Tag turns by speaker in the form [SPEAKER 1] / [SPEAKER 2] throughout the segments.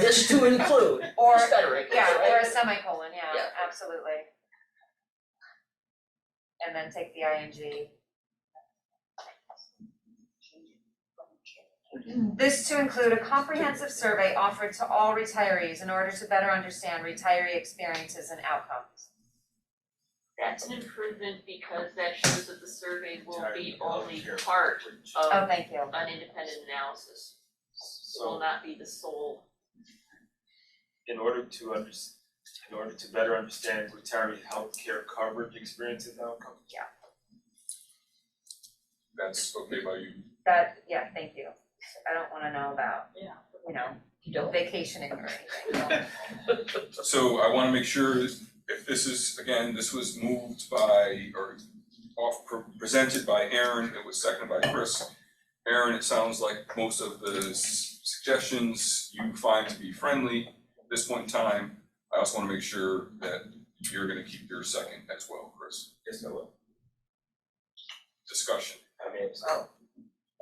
[SPEAKER 1] this to include,
[SPEAKER 2] Or,
[SPEAKER 1] just better English,
[SPEAKER 2] yeah,
[SPEAKER 1] right?
[SPEAKER 2] or a semicolon, yeah,
[SPEAKER 1] Yeah.
[SPEAKER 2] absolutely. And then take the ing. This to include a comprehensive survey offered to all retirees in order to better understand retiree experiences and outcomes.
[SPEAKER 3] That's an improvement because that shows that the survey will be
[SPEAKER 4] Retirement
[SPEAKER 3] only
[SPEAKER 4] volunteer
[SPEAKER 3] part
[SPEAKER 4] contribution.
[SPEAKER 2] Oh,
[SPEAKER 3] of
[SPEAKER 2] thank you.
[SPEAKER 3] an independent analysis. It will
[SPEAKER 4] So
[SPEAKER 3] not be the sole.
[SPEAKER 4] in order to under, in order to better understand retiree healthcare coverage experience and outcome.
[SPEAKER 5] That's okay by you.
[SPEAKER 2] That, yeah, thank you. I don't wanna know about,
[SPEAKER 3] Yeah.
[SPEAKER 2] you know,
[SPEAKER 1] You don't.
[SPEAKER 2] vacationing or anything.
[SPEAKER 5] So I wanna make sure if this is, again, this was moved by or off presented by Aaron, it was seconded by Chris. Aaron, it sounds like most of the s- suggestions you find to be friendly at this point in time. I also wanna make sure that you're gonna keep your second as well, Chris.
[SPEAKER 4] Yes, I will.
[SPEAKER 5] Discussion.
[SPEAKER 4] I mean, it's-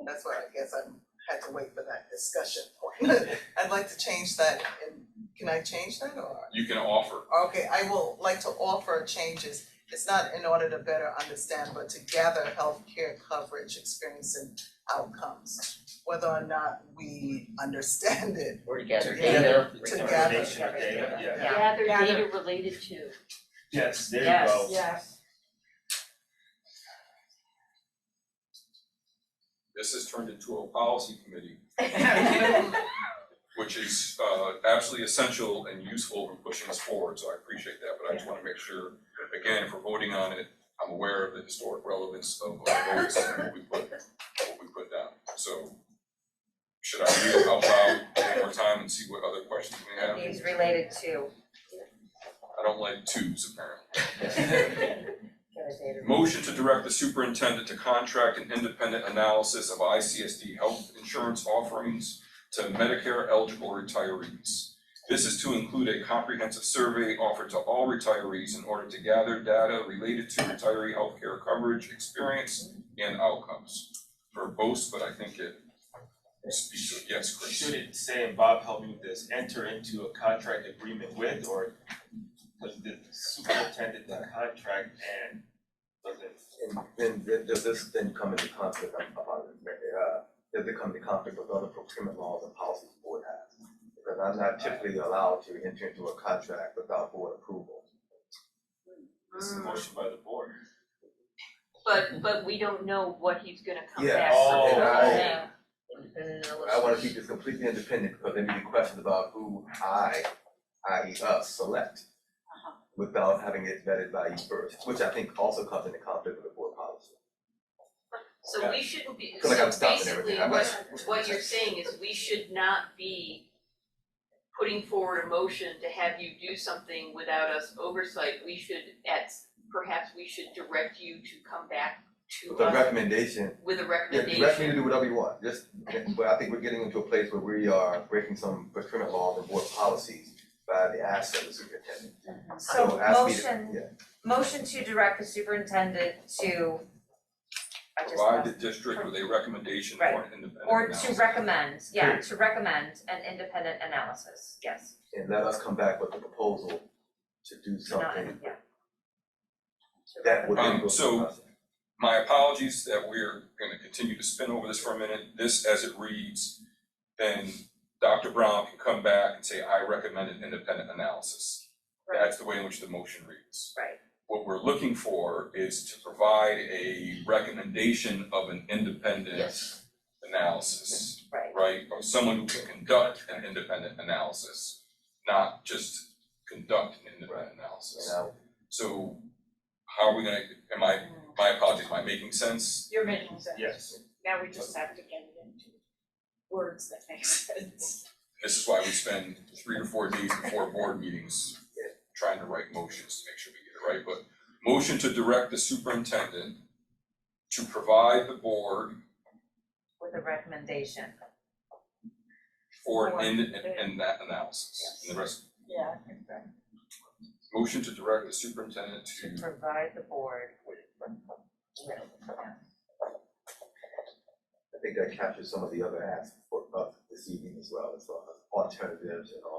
[SPEAKER 6] That's why I guess I had to wait for that discussion point. I'd like to change that and can I change that or?
[SPEAKER 5] You can offer
[SPEAKER 6] Okay, I will like to offer changes. It's not in order to better understand, but to gather healthcare coverage experience and outcomes. Whether or not we understand it.
[SPEAKER 1] Or together,
[SPEAKER 6] To
[SPEAKER 1] data,
[SPEAKER 6] to
[SPEAKER 1] return.
[SPEAKER 6] gather.
[SPEAKER 4] Recommendation of data, yeah.
[SPEAKER 2] Yeah.
[SPEAKER 3] Gather
[SPEAKER 6] Gather.
[SPEAKER 3] data related to.
[SPEAKER 4] Yes, there you
[SPEAKER 2] Yes.
[SPEAKER 4] go.
[SPEAKER 6] Yes.
[SPEAKER 5] This has turned into a policy committee,
[SPEAKER 6] Yes.
[SPEAKER 5] which is uh absolutely essential and useful in pushing us forward, so I appreciate that, but I just wanna make sure, again, if we're voting on it, I'm aware of the historic relevance of what the votes and what we put, what we put down, so. Should I read it out loud one more time and see what other questions we have?
[SPEAKER 2] These related to.
[SPEAKER 5] I don't like twos apparently.
[SPEAKER 2] Data.
[SPEAKER 5] Motion to direct the superintendent to contract an independent analysis of ICSD health insurance offerings to Medicare eligible retirees. This is to include a comprehensive survey offered to all retirees in order to gather data related to retiree healthcare coverage, experience, and outcomes. Verbose, but I think it speaks to, it. yes, Chris.
[SPEAKER 4] Should it say, and Bob help me with this, enter into a contract agreement with, or does the superintendent the contract and does it?
[SPEAKER 7] And then, then does this then come into conflict of, of other, uh, does it come into conflict with other procurement laws and policies the board has? Because I'm not typically allowed to enter into a contract without board approval.
[SPEAKER 4] This
[SPEAKER 3] Mm.
[SPEAKER 4] is a motion by the board.
[SPEAKER 3] But, but we don't know what he's gonna come
[SPEAKER 7] Yeah.
[SPEAKER 3] back
[SPEAKER 4] Oh.
[SPEAKER 3] with.
[SPEAKER 7] And I,
[SPEAKER 3] Yeah.
[SPEAKER 1] Independent
[SPEAKER 7] I wanna
[SPEAKER 1] analysis.
[SPEAKER 7] keep this completely independent, because there may be questions about who I, i.e. us, select
[SPEAKER 3] Uh-huh.
[SPEAKER 7] without having it vetted by you first, which I think also comes into conflict with the board policy.
[SPEAKER 3] So we shouldn't be,
[SPEAKER 7] Feel like
[SPEAKER 3] so
[SPEAKER 7] I'm stopping
[SPEAKER 3] basically,
[SPEAKER 7] everything, I'm
[SPEAKER 3] what,
[SPEAKER 7] not.
[SPEAKER 3] what you're saying is we should not be putting forward a motion to have you do something without us oversight, we should, at, perhaps we should direct you to come back to
[SPEAKER 7] With a
[SPEAKER 3] us
[SPEAKER 7] recommendation
[SPEAKER 3] with a
[SPEAKER 7] Yeah,
[SPEAKER 3] recommendation.
[SPEAKER 7] direct me to do whatever you want, just, but I think we're getting into a place where we are breaking some procurement laws and board policies by the acts of the superintendent.
[SPEAKER 2] So
[SPEAKER 7] ask me to-
[SPEAKER 2] motion
[SPEAKER 7] Yeah,
[SPEAKER 2] Motion to direct the superintendent to, I just
[SPEAKER 5] Provide the
[SPEAKER 2] lost,
[SPEAKER 5] district with a recommendation for an independent
[SPEAKER 2] or
[SPEAKER 5] analysis.
[SPEAKER 2] to recommend, yeah, to recommend an independent analysis, yes.
[SPEAKER 7] and let us come back with a proposal to do
[SPEAKER 2] to not-
[SPEAKER 7] something
[SPEAKER 2] yeah. To
[SPEAKER 7] that would.
[SPEAKER 2] recommend.
[SPEAKER 5] Um, so- My apologies that we're gonna continue to spin over this for a minute. This, as it reads, then Dr. Brown can come back and say, I recommend an independent analysis. That's the way in which the motion reads.
[SPEAKER 2] Right.
[SPEAKER 5] What we're looking for is to provide a recommendation of an independent
[SPEAKER 1] Yes,
[SPEAKER 5] analysis,
[SPEAKER 2] Right,
[SPEAKER 5] right? Of someone who can conduct an independent analysis, not just conduct an independent analysis.
[SPEAKER 7] And
[SPEAKER 5] So how are we gonna, am I, my apologies, am I making sense?
[SPEAKER 8] You're making sense.
[SPEAKER 4] Yes.
[SPEAKER 8] Now we just have to get it into words that make sense.
[SPEAKER 5] This is why we spend three to four days before board meetings trying to write motions to make sure we get it right, but motion to direct the superintendent to provide the board
[SPEAKER 2] with a recommendation,
[SPEAKER 5] for in, in, in that analysis, and the rest,
[SPEAKER 8] Yeah.
[SPEAKER 5] motion to direct the superintendent
[SPEAKER 2] to
[SPEAKER 5] to,
[SPEAKER 2] provide the board with.
[SPEAKER 7] I think that captures some of the other asks for us this evening as well, as far as alternatives and all